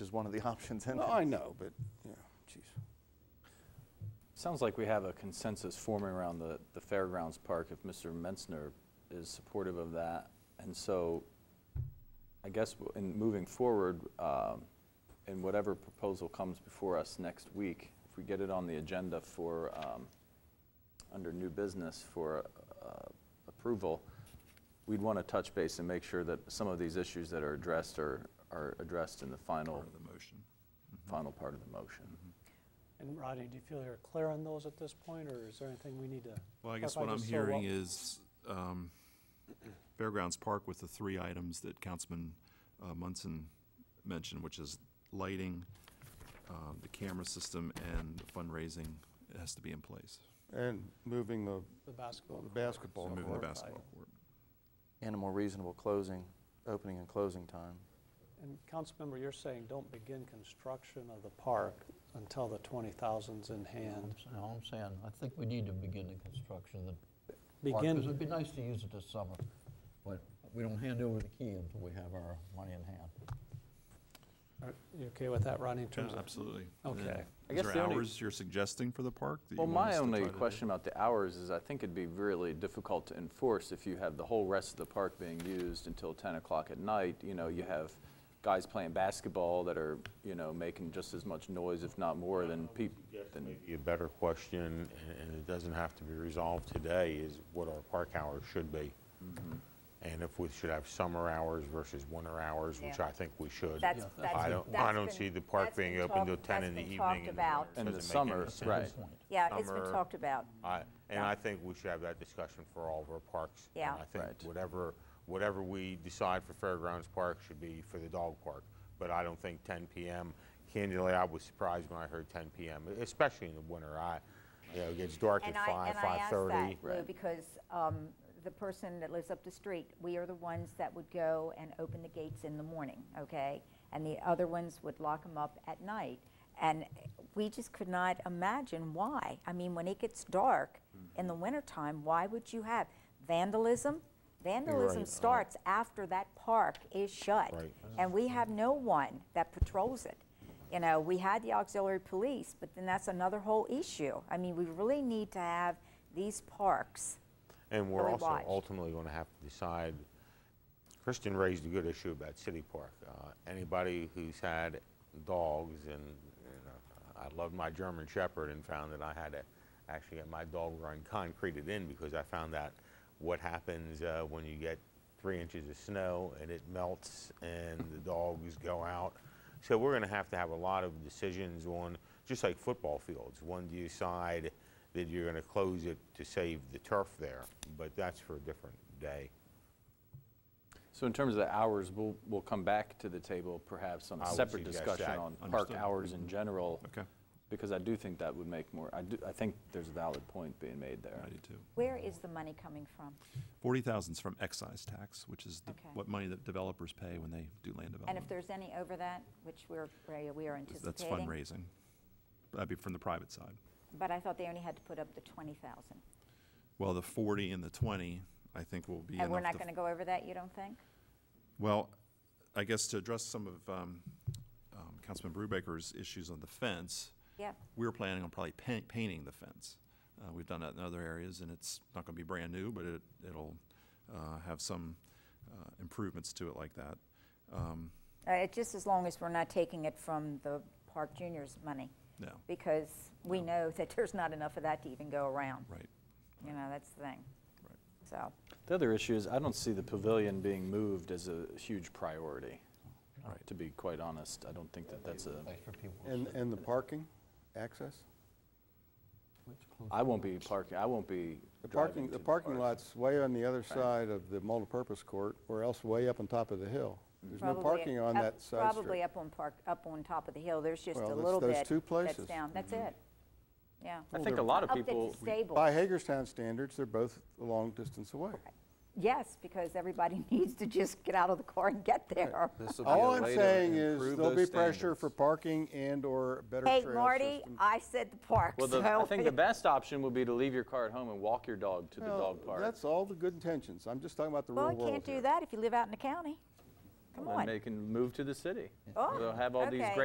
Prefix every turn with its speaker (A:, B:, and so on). A: is one of the options in
B: No,
A: there.
B: I know, but, yeah, jeez.
C: Sounds like we have a consensus forming around the, the Fairgrounds Park if Mr. Menzner is supportive of that. And so I guess w- in moving forward, um, in whatever proposal comes before us next week, if we get it on the agenda for, um, under new business for uh, approval, we'd want to touch base and make sure that some of these issues that are addressed are, are addressed in the final,
D: Part of the motion. Mm-hmm.
C: final part of the motion.
E: And Rodney, do you feel you're clear on those at this point, or is there anything we need to?
D: Well, I
E: If
D: guess
E: I
D: what I'm
E: just sort of
D: hearing
E: wa-
D: is um, Fairgrounds Park with the three items that Councilman uh, Munson mentioned, which is lighting, um, the camera system, and fundraising has to be in place.
B: And moving the
E: The basketball.
B: the
E: court?
B: basketball
E: So
D: Moving the
B: court.
D: basketball court.
A: And a more reasonable closing, opening and closing time.
E: And Councilmember, you're saying don't begin construction of the park until the 20,000's in hand.
F: I'm s- No, I'm saying, I think we need to begin the construction of the park, because
E: Begin,
F: it'd be nice to use it this summer, but we don't hand over the key until we have our money in hand.
E: are you okay with that, Rodney, in terms
D: Yeah,
E: of?
D: Absolutely. And
E: Okay.
D: then
C: I
D: Is
C: guess the
D: there
C: only-
D: hours you're suggesting for the park? that you
C: Well,
D: want us
C: my
D: to
C: only
D: try to do?
C: question about the hours is I think it'd be really difficult to enforce if you have the whole rest of the park being used until 10 o'clock at night. You know, you have guys playing basketball that are, you know, making just as much noise, if not more, than people. Than,
G: Maybe a better question, and- and it doesn't have to be resolved today, is what our park hours should be.
H: Mm-hmm.
G: And if we should have summer hours versus winter hours, which
H: Yeah.
G: I think we should.
H: That's, that's.
G: I don't, I
H: that's
G: don't
H: been-
G: see the park
H: that's been
G: being open
H: talked-
G: till 10
H: that's
G: in the
H: been
G: evening.
H: talked
G: in the
H: about.
G: winter. It
C: In the
G: doesn't make any
C: summer,
G: sense.
C: right.
F: Good point.
H: Yeah, it's been
G: summer-
H: talked about.
G: I- And I think we should have that discussion for all of our parks. And
H: Yeah.
G: I think
C: Right.
G: whatever, whatever we decide for Fairgrounds Park should be for the dog park. But I don't think 10 PM, candidly, I was surprised when I heard 10 PM, especially in the winter. I, you know, it gets dark at
H: And I,
G: 5,
H: and I asked that,
G: 5:30.
H: Lou, because um, the person that lives up the street, we are the ones that would go and open the gates in the morning, okay? And the other ones would lock them up at night. And we just could not imagine why. I mean, when it gets dark in
G: Mm-hmm.
H: the wintertime, why would you have vandalism? Vandalism
G: right. uh-huh.
H: starts after that park is shut.
G: Right.
H: And we have no one that patrols it. You know, we had the auxiliary police, but then that's another whole issue. I mean, we really need to have these parks.
G: And we're
H: Really
G: also
H: watched.
G: ultimately going to have to decide, Kristen raised a good issue about City Park. Uh, Anybody who's had dogs and, you know, I loved my German Shepherd and found that I had to actually get my dog run concreted in because I found out what happens uh, when you get three inches of snow and it melts and the dogs go out. So we're going to have to have a lot of decisions on, just like football fields. When do you decide that you're going to close it to save the turf there? But that's for a different day.
C: so in terms of the hours, we'll, we'll come back to the table perhaps on
G: I
C: a
G: would
C: separate
G: suggest
C: discussion
G: that.
C: on park
D: Understood.
C: hours in general.
D: Okay,
C: Because I do think that would make more, I, do, I think there's a valid point being made there.
D: I do too.
H: Where is the money coming from?
D: 40,000 is from excise tax, which is the-
H: Okay.
D: what money that developers pay when they do land development.
H: And if there's any over that, which we're, we are anticipating.
D: That's fundraising. That'd be from the private side.
H: But I thought they only had to put up the 20,000.
D: Well, the 40 and the 20, I think will be enough.
H: And we're not
D: to-
H: going to go over that, you don't think?
D: Well, I guess to address some of um, um, Councilman Brubaker's issues on the fence,
H: Yeah.
D: we were planning on probably pa- painting the fence. Uh, We've done that in other areas, and it's not going to be brand new, but it, it'll uh, have some uh, improvements to it like that. Um,
H: Uh, it- Just as long as we're not taking it from the Park Juniors' money,
D: No,
H: because we know that there's not enough of that to even go around.
D: right.
H: You know, that's the thing.
D: Right.
H: So,
C: The other issue is I don't see the pavilion being moved as a huge priority. To be quite honest, I don't think that that's a,
F: Place for people to
B: And,
F: sit.
B: and the parking access?
F: Let's close
C: I won't be parking, I won't be
B: The
C: driving
B: parking,
C: to
B: the parking
C: park.
B: lot's way on the other side of the multipurpose court, or else way up on top of the hill. There's no
H: probably.
B: parking on
H: up-
B: that side
H: Probably
B: street.
H: up on Park, up on top of the hill, there's just a
B: Well, that's-
H: little bit.
B: those two
H: That's
B: places. Mm-hmm.
H: down, that's it. Yeah.
C: I think a lot of
H: Up at
C: people,
H: the stable.
B: By Hagerstown standards, they're both a long distance away.
H: Yes, because everybody needs to just get out of the car and get there.
B: All I'm saying is there'll be pressure for parking and/or better trail
H: Hey,
B: system.
H: Marty, I said the park,
C: well, the-
H: so
C: I think the best option would be to leave your car at home and walk your dog to the
B: Well,
C: dog park.
B: That's all the good intentions. I'm just talking about the real
H: Well,
B: world
H: you can't do
B: here.
H: that if you live out in the county. Come
C: And
H: on.
C: they can move to the city.
H: Oh,
C: They'll have all these
H: okay.
C: great